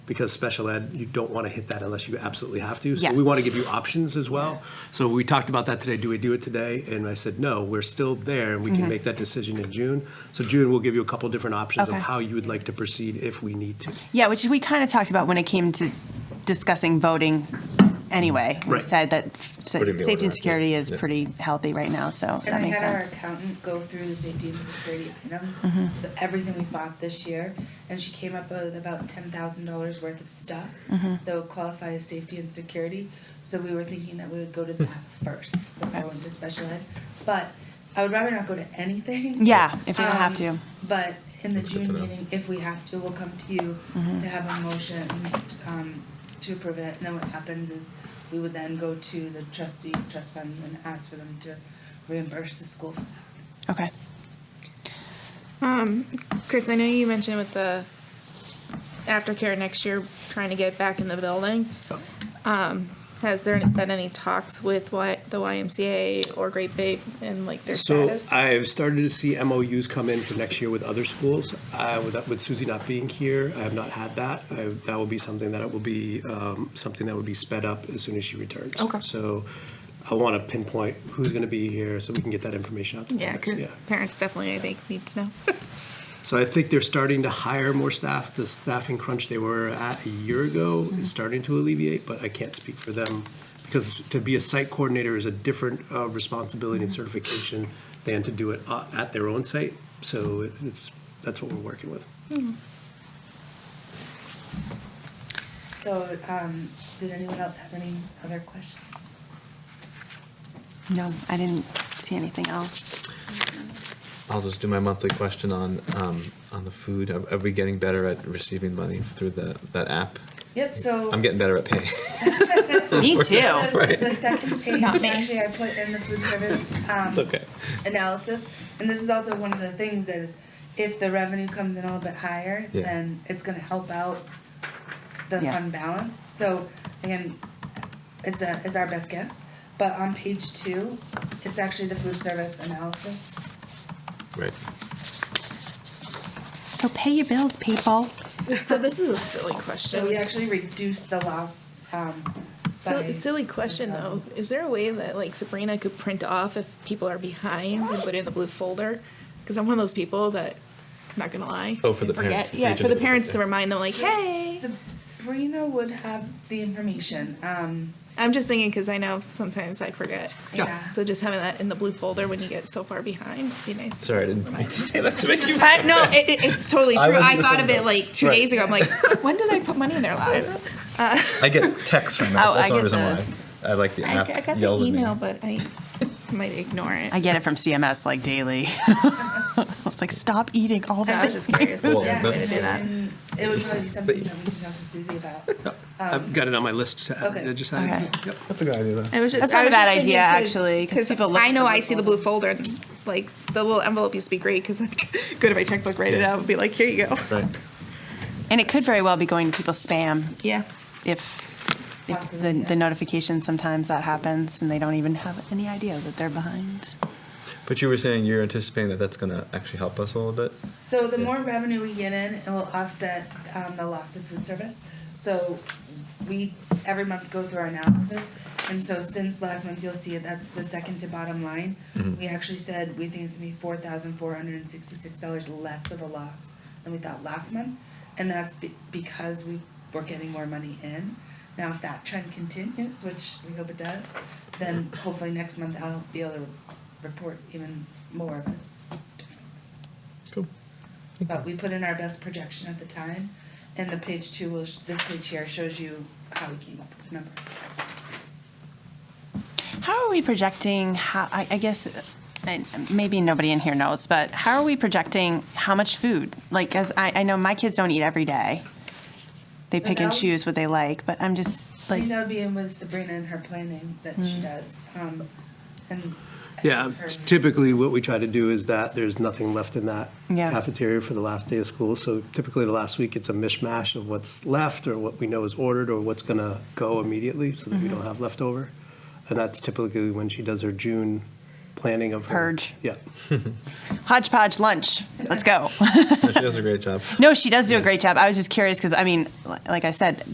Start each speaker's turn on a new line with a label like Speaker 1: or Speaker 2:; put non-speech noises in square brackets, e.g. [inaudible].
Speaker 1: because special ed, you don't want to hit that unless you absolutely have to. So
Speaker 2: Yes.
Speaker 1: we want to give you options as well. So we talked about that today. Do we do it today? And I said, no, we're still there and we
Speaker 2: Mm-hmm.
Speaker 1: can make that decision in June. So June, we'll give you a couple different options of
Speaker 2: Okay.
Speaker 1: how you would like to proceed if we need to.
Speaker 2: Yeah, which we kind of talked about when it came to discussing voting anyway. We
Speaker 1: Right.
Speaker 2: said that sa-
Speaker 3: Putting the
Speaker 2: safety
Speaker 3: order
Speaker 2: and
Speaker 3: out,
Speaker 2: security
Speaker 3: yeah.
Speaker 2: is
Speaker 3: Yeah.
Speaker 2: pretty healthy right now, so
Speaker 4: And I
Speaker 2: that makes
Speaker 4: had our
Speaker 2: sense. Mm-hmm.
Speaker 4: accountant go through the safety and security items, the- everything we bought this year, and she came up with about ten thousand dollars worth of stuff
Speaker 2: Mm-hmm.
Speaker 4: that would qualify as safety and security. So we were thinking that we would go to that first, before
Speaker 2: Okay.
Speaker 4: we went to special ed. But I would rather not go to anything.
Speaker 2: Yeah, if you don't have
Speaker 4: Um,
Speaker 2: to.
Speaker 4: But in the
Speaker 3: That's good to
Speaker 4: June
Speaker 3: know.
Speaker 4: meeting, if we have to, we'll come to you
Speaker 2: Mm-hmm.
Speaker 4: to have a motion um, to approve it. And then what happens is we would then go to the trustee trust fund and ask for them to reimburse the school. for that.
Speaker 2: Okay.
Speaker 5: Chris, I know you mentioned with the aftercare next year, trying to get back in the building.
Speaker 4: Oh.
Speaker 5: Um, has there been any talks with y- the YMCA or Great Babe and like their
Speaker 1: So
Speaker 5: status?
Speaker 1: I've started to see MOUs come in for next year with other schools. Uh, with- With Susie not being here, I have not had that. I- That will be something that it will be, um, something that would be sped up as soon as she returns.
Speaker 5: Okay.
Speaker 1: So I want to pinpoint who's going to be here so we can get that information out to
Speaker 5: yeah,
Speaker 1: parents.
Speaker 5: because parents definitely, I think, need to know.
Speaker 1: So I think they're starting to hire more staff. The staffing crunch they were at a year ago is starting to alleviate, but I can't speak for them because to be a site coordinator is a different uh, responsibility and certification than to do it uh, at their own site. So it- it's, that's what we're working with.
Speaker 4: So, um, did anyone else have any other questions?
Speaker 2: No, I didn't see anything
Speaker 3: [laughs]
Speaker 2: else.
Speaker 3: I'll just do my monthly question on, um, on the food. Are, are we getting better at receiving money through the, that app?
Speaker 4: Yep, so.
Speaker 3: I'm getting better at pay.
Speaker 2: Me too.
Speaker 4: The-
Speaker 3: Right.
Speaker 4: The second page,
Speaker 5: [laughs]
Speaker 2: Not me.
Speaker 4: actually, I put in the food service. um,
Speaker 3: It's okay.
Speaker 4: analysis. And this is also one of the things that is, if the revenue comes in a little bit higher,
Speaker 3: Yeah.
Speaker 4: then it's gonna help out the
Speaker 2: Yeah.
Speaker 4: fund balance. So again, it's a, it's our best guess, but on page two, it's actually the food service analysis.
Speaker 3: [laughs] Right.
Speaker 2: So pay your bills, people.
Speaker 4: [laughs]
Speaker 5: so this is a silly question.
Speaker 4: So we actually reduced the loss, um, by.
Speaker 5: Silly, silly question though. Is there a way that like Sabrina could print off if people are behind and put it in the blue folder? Because I'm one of those people that, not gonna lie.
Speaker 3: Oh, for the
Speaker 5: forget.
Speaker 3: parents, if
Speaker 5: Yeah,
Speaker 3: they
Speaker 5: for
Speaker 3: do
Speaker 5: the
Speaker 3: it,
Speaker 5: parents to
Speaker 3: yeah.
Speaker 5: remind them like, hey.
Speaker 4: Sabrina would have the information, um,
Speaker 5: I'm just thinking because I know sometimes I forget.
Speaker 4: yeah.
Speaker 5: So just having that in the blue folder when you get so far behind would be nice.
Speaker 3: Sorry, I didn't mean to say that
Speaker 5: [laughs]
Speaker 3: to make you.
Speaker 5: Uh, no, it, it- it's totally
Speaker 3: [laughs] I
Speaker 5: true.
Speaker 3: was in
Speaker 5: I,
Speaker 3: the
Speaker 5: thought
Speaker 3: same
Speaker 5: of it
Speaker 3: boat.
Speaker 5: like two
Speaker 3: Right.
Speaker 5: days ago. I'm like,
Speaker 3: [laughs]
Speaker 5: when did I put money in their lives?
Speaker 3: I get texts from
Speaker 2: Oh, I
Speaker 3: that. That's the only
Speaker 2: get
Speaker 3: reason
Speaker 2: the-
Speaker 3: why. I like the
Speaker 5: I,
Speaker 3: app
Speaker 5: I got
Speaker 3: yells
Speaker 5: the
Speaker 3: at me.
Speaker 5: email, but I [laughs] might ignore it.
Speaker 2: I get it from CMS like daily. [laughs] It's like, stop eating all
Speaker 5: I
Speaker 2: that.
Speaker 5: was
Speaker 2: [laughs]
Speaker 5: just curious.
Speaker 3: Well,
Speaker 5: if there's a way to do that.
Speaker 4: And it would probably be something that we can talk to Susie about.
Speaker 1: I've got it on my list to add,
Speaker 4: Okay.
Speaker 1: I just added.
Speaker 2: Okay.
Speaker 1: Yep.
Speaker 3: That's a good idea, though.
Speaker 5: I was just,
Speaker 2: That's
Speaker 5: I
Speaker 2: not a
Speaker 5: was
Speaker 2: bad
Speaker 5: just thinking
Speaker 2: idea,
Speaker 5: 'cause-
Speaker 2: actually, 'cause people look
Speaker 5: I
Speaker 2: at
Speaker 5: know
Speaker 2: the
Speaker 5: I
Speaker 2: blue
Speaker 5: see the blue folder and like the little envelope used to be great because I could [laughs] go to my checkbook, write it
Speaker 3: Yeah.
Speaker 5: out, and be like, here you go.
Speaker 3: Right.
Speaker 2: And it could very well be going to people's spam
Speaker 5: Yeah.
Speaker 2: if, if the,
Speaker 4: Possibly, yeah.
Speaker 2: the notification, sometimes that happens and they don't even have any idea that they're behind.
Speaker 3: But you were saying you're anticipating that that's going to actually help us a little bit?
Speaker 4: So the more revenue we get in, it will offset um, the loss of food service. So we, every month, go through our analysis. And so since last month, you'll see it, that's the second to bottom line. We actually said we think it's gonna be four thousand four hundred and sixty-six dollars less of a loss than we thought last month. And that's be- because we were getting more money in. Now, if that trend continues, which we hope it does, then hopefully next month I'll be able to report even more of a difference.
Speaker 3: Cool.
Speaker 4: But we put in our best projection at the time, and the page two will, this page here shows you how we came up with the number.
Speaker 2: How are we projecting, how, I, I guess, uh, and maybe nobody in here knows, but how are we projecting how much food? Like, as I, I know my kids don't eat every day. They pick and
Speaker 4: Without-
Speaker 2: choose what they like, but I'm just
Speaker 4: I
Speaker 2: like,
Speaker 4: think that'll be in with Sabrina and her planning that she does, um, and.
Speaker 1: Yeah,
Speaker 4: as her-
Speaker 1: typically what we try to do is that there's nothing left in that
Speaker 2: Yeah.
Speaker 1: cafeteria for the last day of school. So typically the last week, it's a mishmash of what's left or what we know is ordered or what's going
Speaker 2: Mm-hmm.
Speaker 1: to go immediately so that we don't have leftover. And that's typically when she does her June planning of her-
Speaker 2: Purge.
Speaker 1: Yeah.
Speaker 2: Hodgepodge lunch. Let's go. [laughs]
Speaker 3: No, she does a great job.
Speaker 2: no, she does do a great job. I was just curious because I mean, li- like I said,